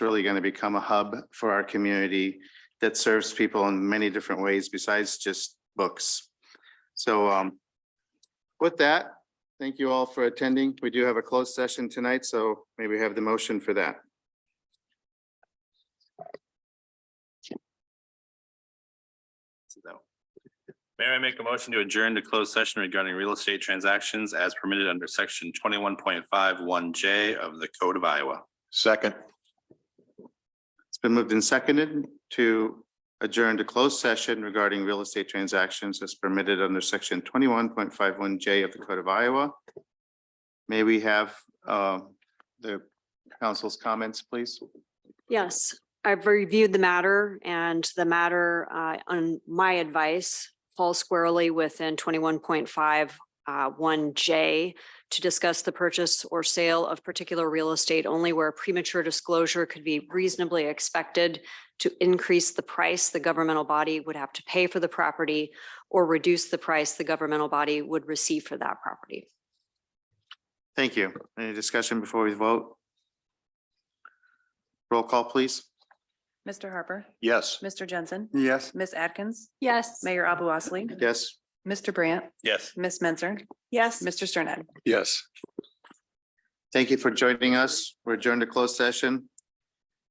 really going to become a hub for our community that serves people in many different ways besides just books. So um, with that, thank you all for attending. We do have a closed session tonight, so maybe have the motion for that. So, Mayor, I make a motion to adjourn to closed session regarding real estate transactions as permitted under section twenty-one point five one J of the Code of Iowa. Second, It's been moved and seconded to adjourn to closed session regarding real estate transactions as permitted under section twenty-one point five one J of the Code of Iowa. May we have um, the council's comments, please? Yes, I've reviewed the matter and the matter, uh, on my advice falls squarely within twenty-one point five, uh, one J to discuss the purchase or sale of particular real estate only where premature disclosure could be reasonably expected to increase the price the governmental body would have to pay for the property or reduce the price the governmental body would receive for that property. Thank you. Any discussion before we vote? Roll call, please. Mr. Harper, yes. Mr. Jensen, Yes. Ms. Atkins, Yes. Mayor Abu Osley, Yes, Mr. Brandt, Yes. Ms. Menzer, Yes. Mr. Sternad. Yes. thank you for joining us. We're adjourned to closed session.